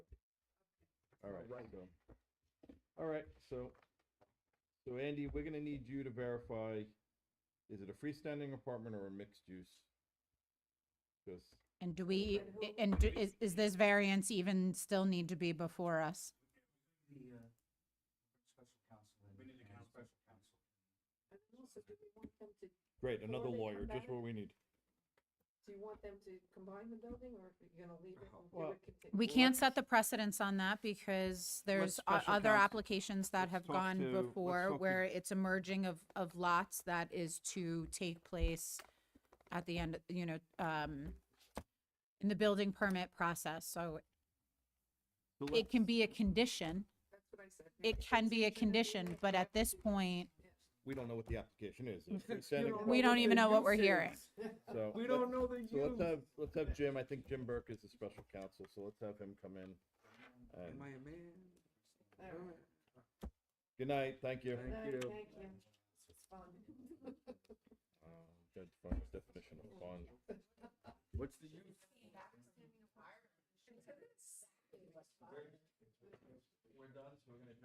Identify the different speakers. Speaker 1: All right,
Speaker 2: Right.
Speaker 1: so, all right, so, so Andy, we're gonna need you to verify, is it a freestanding apartment or a mixed use? Because,
Speaker 3: And do we, i- and do- is, is this variance even still need to be before us?
Speaker 2: The, uh, special counsel. We need a counsel. Special counsel.
Speaker 4: And then also, do we want them to, do
Speaker 1: great, another
Speaker 4: they come
Speaker 1: lawyer, just
Speaker 4: back?
Speaker 1: what we need.
Speaker 4: you want them to combine the building, or if you're gonna leave it, or
Speaker 1: Well,
Speaker 4: do it continue?
Speaker 3: We can't set the precedence on that because there's o-
Speaker 5: special
Speaker 3: other
Speaker 5: counsel-
Speaker 3: applications that
Speaker 5: let's
Speaker 3: have
Speaker 5: talk
Speaker 3: gone
Speaker 5: to- let's
Speaker 3: before
Speaker 5: talk to-
Speaker 3: where it's a merging of, of lots that is to take place at the end, you know, um, in the building permit process. So
Speaker 5: So
Speaker 3: it
Speaker 5: let's-
Speaker 3: can be a condition.
Speaker 4: That's what I said.
Speaker 3: It can be a condition, but at this point,
Speaker 1: We don't know what the application is. It's a
Speaker 2: You
Speaker 1: freestanding
Speaker 3: We
Speaker 2: don't
Speaker 1: apartment,
Speaker 2: know
Speaker 3: don't even
Speaker 2: the
Speaker 3: know what we're
Speaker 2: use
Speaker 3: hearing.
Speaker 2: is.
Speaker 1: so
Speaker 2: We
Speaker 1: let-
Speaker 2: don't know the
Speaker 1: So let's
Speaker 2: use.
Speaker 1: have, let's have Jim, I think Jim Burke is the special counsel, so let's have him come in. And
Speaker 5: Am I a man?
Speaker 4: Alright.
Speaker 5: Alright.
Speaker 1: Good night, thank you.
Speaker 5: Thank
Speaker 4: Alright,
Speaker 5: you.
Speaker 4: Thank you. This was fun.
Speaker 1: Uh, Judge Funk's definition of fun.
Speaker 5: What's the use?